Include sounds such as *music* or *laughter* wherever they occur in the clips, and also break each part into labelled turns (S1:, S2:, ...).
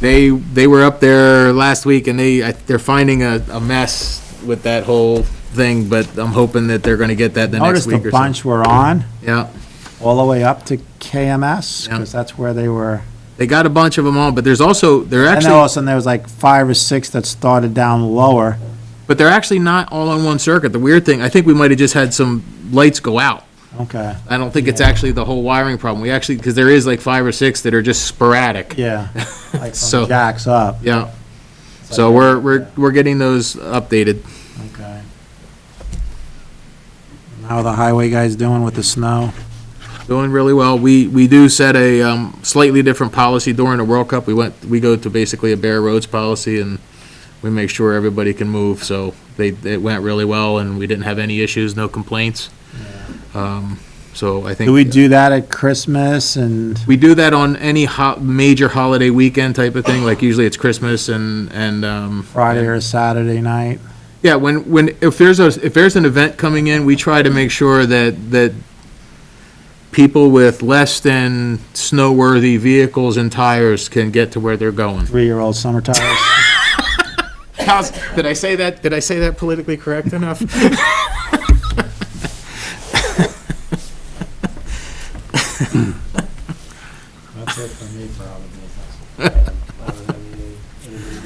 S1: They, they were up there last week and they, I- they're finding a, a mess with that whole thing, but I'm hoping that they're gonna get that the next
S2: Noticed a
S1: week or something.
S2: bunch were on,
S1: Yeah,
S2: all the way up to KMS,
S1: Yeah.
S2: because that's where they were.
S1: they got a bunch of them on, but there's also, they're
S2: And then all
S1: actually,
S2: of a sudden, there was like five or six that started down lower.
S1: but they're actually not all on one circuit. The weird thing, I think we might have just had some lights go out.
S2: Okay,
S1: I don't think it's actually the whole wiring problem. We actually, because there is like five or six that are just sporadic. *laughs*
S2: yeah. Like
S1: So-
S2: from Jack's up,
S1: Yeah. So we're, we're, we're getting those updated.
S2: okay. And How are the highway guys doing with the snow?
S1: Doing really well. We, we do set a um, slightly different policy during the World Cup. We went, we go to basically a bare roads policy and we make sure everybody can move. So they, it went really well and we didn't have any issues, no complaints. Um, So I think.
S2: Do we do that at Christmas and,
S1: We do that on any ho- major holiday weekend type of thing, like usually it's Christmas and, and. um,
S2: Friday or Saturday night.
S1: Yeah, when, when, if there's a, if there's an event coming in, we try to make sure that, that people with less than snow-worthy vehicles and tires can get to where they're going.
S2: Three-year-old summer tires.
S1: How's, did I say that, did I say that politically correct enough?
S3: That's it for me for all the business.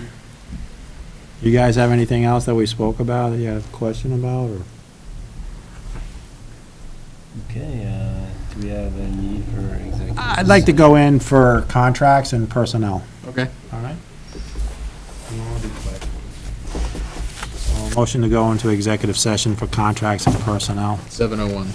S2: You guys have anything else that we spoke about that you have a question about, or?
S3: Okay, uh, do we have a need for executive?
S2: I'd like to go in for contracts and personnel.
S1: Okay.
S2: All right. Motion to go into executive session for contracts and personnel.
S1: Seven oh one.